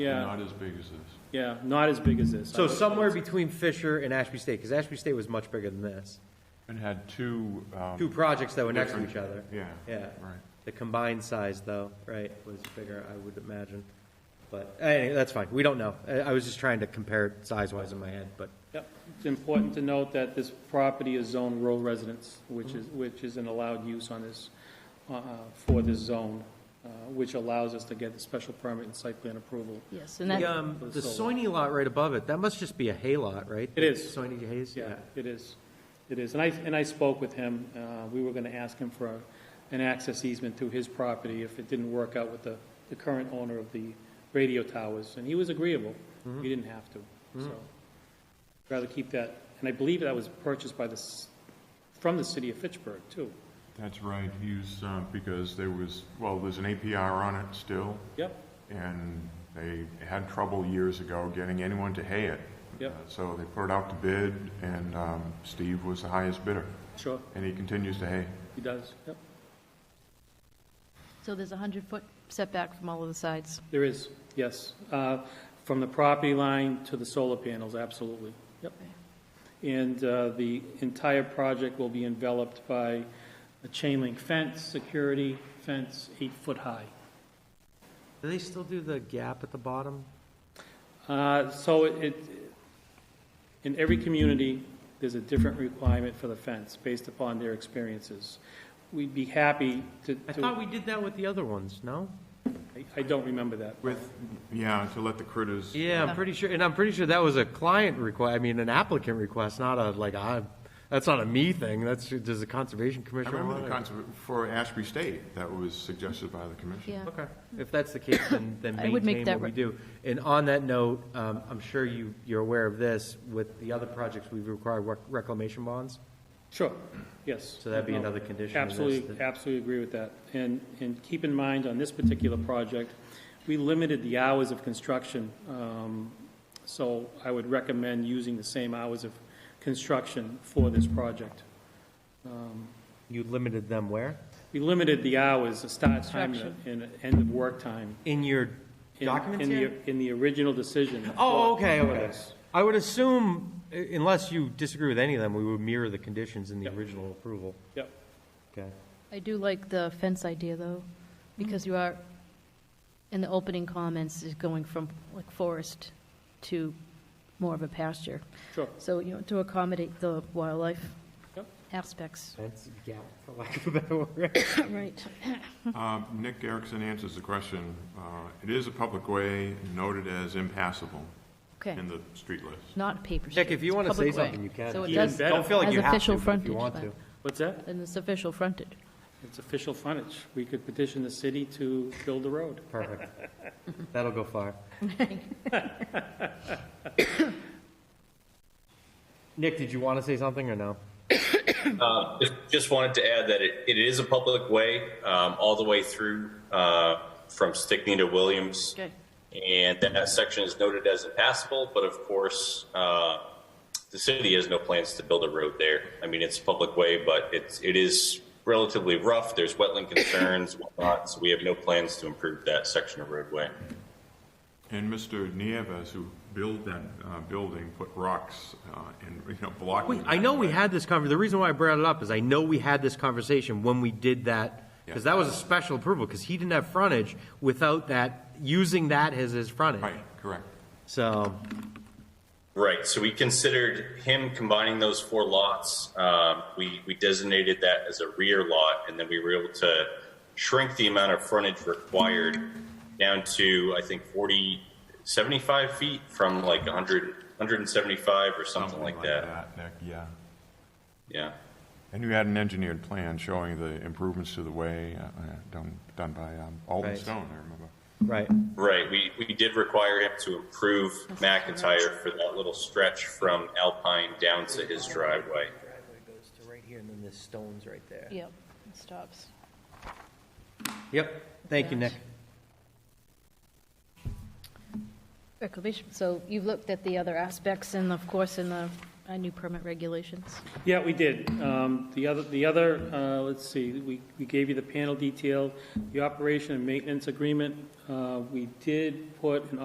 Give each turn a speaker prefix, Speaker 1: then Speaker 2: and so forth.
Speaker 1: Yeah,
Speaker 2: Not as big as this.
Speaker 1: yeah, not as big as this.
Speaker 3: So somewhere between Fisher and Ashby State, because Ashby State was much bigger than this.
Speaker 2: And had two, um.
Speaker 3: Two projects that were next to each other.
Speaker 2: Yeah,
Speaker 3: Yeah.
Speaker 2: right.
Speaker 3: The combined size, though, right, was bigger, I would imagine. But, anyway, that's fine, we don't know. I, I was just trying to compare it size-wise in my head, but,
Speaker 1: Yep, it's important to note that this property is zoned rural residence, which is, which is an allowed use on this, uh, uh, for this zone, uh, which allows us to get the special permit and site plan approval.
Speaker 4: Yes, and
Speaker 3: the,
Speaker 4: that,
Speaker 3: um,
Speaker 1: For the
Speaker 3: the
Speaker 1: solar.
Speaker 3: Soini lot right above it, that must just be a hay lot, right?
Speaker 1: It is.
Speaker 3: Soini Hayes, yeah.
Speaker 1: Yeah, it is, it is. And I, and I spoke with him, uh, we were gonna ask him for an access easement to his property if it didn't work out with the, the current owner of the radio towers, and he was agreeable. We didn't have to, so. Rather keep that, and I believe that was purchased by the, s- from the city of Fitchburg, too.
Speaker 2: That's right, he's, um, because there was, well, there's an APR on it still,
Speaker 1: Yep,
Speaker 2: and they had trouble years ago getting anyone to hay it.
Speaker 1: Yep.
Speaker 2: Uh, So they put it out to bid, and, um, Steve was the highest bidder,
Speaker 1: sure,
Speaker 2: and he continues to hay.
Speaker 1: he does, yep.
Speaker 4: so there's a 100-foot setback from all of the sides.
Speaker 1: There is, yes. Uh, From the property line to the solar panels, absolutely. Yep. And uh, the entire project will be enveloped by a chain link fence, security fence, eight foot high.
Speaker 3: Do they still do the gap at the bottom?
Speaker 1: Uh, So it, in every community, there's a different requirement for the fence based upon their experiences. We'd be happy to,
Speaker 3: I
Speaker 1: to-
Speaker 3: thought we did that with the other ones, no?
Speaker 1: I- I don't remember that.
Speaker 2: With, yeah, to let the critters.
Speaker 3: Yeah, I'm pretty sure, and I'm pretty sure that was a client request, I mean, an applicant request, not a, like, I, that's not a me thing, that's, does the Conservation
Speaker 2: I
Speaker 3: Commission
Speaker 2: remember
Speaker 3: want
Speaker 2: the
Speaker 3: it?
Speaker 2: concept for Ashby State, that was suggested by the commission.
Speaker 4: Yeah.
Speaker 3: Okay, if that's the case, then, then
Speaker 4: I would make
Speaker 3: maintain
Speaker 4: that
Speaker 3: what we
Speaker 4: re-
Speaker 3: do. And on that note, um, I'm sure you, you're aware of this, with the other projects, we've required rec- reclamation bonds,
Speaker 1: Sure, yes.
Speaker 3: so that'd be
Speaker 1: No.
Speaker 3: another condition of this.
Speaker 1: Absolutely,
Speaker 3: that-
Speaker 1: absolutely agree with that. And, and keep in mind, on this particular project, we limited the hours of construction. um, So I would recommend using the same hours of construction for this project.
Speaker 3: You limited them where?
Speaker 1: We limited the hours, the start time and
Speaker 4: Construction.
Speaker 1: the- and the end of work time.
Speaker 3: In your
Speaker 1: in-
Speaker 3: documents
Speaker 1: in the-
Speaker 3: here?
Speaker 1: In the original decision.
Speaker 3: Oh, okay, okay.
Speaker 1: Yes.
Speaker 3: I would assume, uh, unless you disagree with any of them, we would mirror the conditions in the
Speaker 1: Yep.
Speaker 3: original approval.
Speaker 1: Yep,
Speaker 3: Okay.
Speaker 4: I do like the fence idea, though, because you are, in the opening comments, is going from like forest to more of a pasture.
Speaker 1: sure.
Speaker 4: So, you know, to accommodate the wildlife
Speaker 1: Yep.
Speaker 4: aspects.
Speaker 3: That's, yeah, for lack of a better word.
Speaker 4: Right.
Speaker 2: Uh, Nick Erickson answers the question. Uh, It is a public way noted as impassable
Speaker 4: Okay,
Speaker 2: in the street list.
Speaker 4: not paper street.
Speaker 3: Nick, if you
Speaker 4: it's
Speaker 3: want to say
Speaker 4: public way.
Speaker 3: something, you can.
Speaker 4: So it
Speaker 1: Even
Speaker 4: does,
Speaker 1: better.
Speaker 3: Don't feel like
Speaker 4: As
Speaker 3: you have
Speaker 4: official
Speaker 3: to, but if you
Speaker 4: frontage,
Speaker 3: want
Speaker 4: but-
Speaker 3: to.
Speaker 1: What's that?
Speaker 4: and it's official frontage.
Speaker 1: It's official frontage. We could petition the city to build the road.
Speaker 3: Perfect. That'll go far. Nick, did you want to say something or no?
Speaker 5: Uh, just- Just wanted to add that it, it is a public way, um, all the way through, uh, from Stickney to Williams.
Speaker 4: Okay.
Speaker 5: And that section is noted as impassable, but of course, uh, the city has no plans to build a road there. I mean, it's a public way, but it's, it is relatively rough. There's wetland concerns, whatnot, so we have no plans to improve that section of roadway.
Speaker 2: And Mr. Nieves, who built that uh, building, put rocks uh, and, you know, blocking.
Speaker 3: We, I know we had this conver, the reason why I brought it up is I know we had this conversation when we did that, because
Speaker 2: Yeah.
Speaker 3: that was a special approval, because he didn't have frontage without that, using that as his frontage.
Speaker 2: Right, correct.
Speaker 3: So,
Speaker 5: Right, so we considered him combining those four lots. Um, we, we designated that as a rear lot, and then we were able to shrink the amount of frontage required down to, I think, 40, 75 feet from like 100, 175 or something, like, that.
Speaker 2: Nick, yeah.
Speaker 5: Yeah.
Speaker 2: And you had an engineered plan showing the improvements to the way uh, uh, done, done by um, Alden
Speaker 3: Right.
Speaker 2: Stone, I remember.
Speaker 3: right,
Speaker 5: Right, we, we did require him to improve McIntyre for that little stretch from Alpine down to his driveway.
Speaker 3: driveway goes to right here, and then there's stones right there.
Speaker 4: Yep, it stops.
Speaker 3: Yep, thank you, Nick.
Speaker 4: Reclamation, so you've looked at the other aspects and of course in the uh, new permit regulations.
Speaker 1: Yeah, we did. Um, The other, the other, uh, let's see, we we gave you the panel detail, the operation and maintenance agreement. Uh, We did put an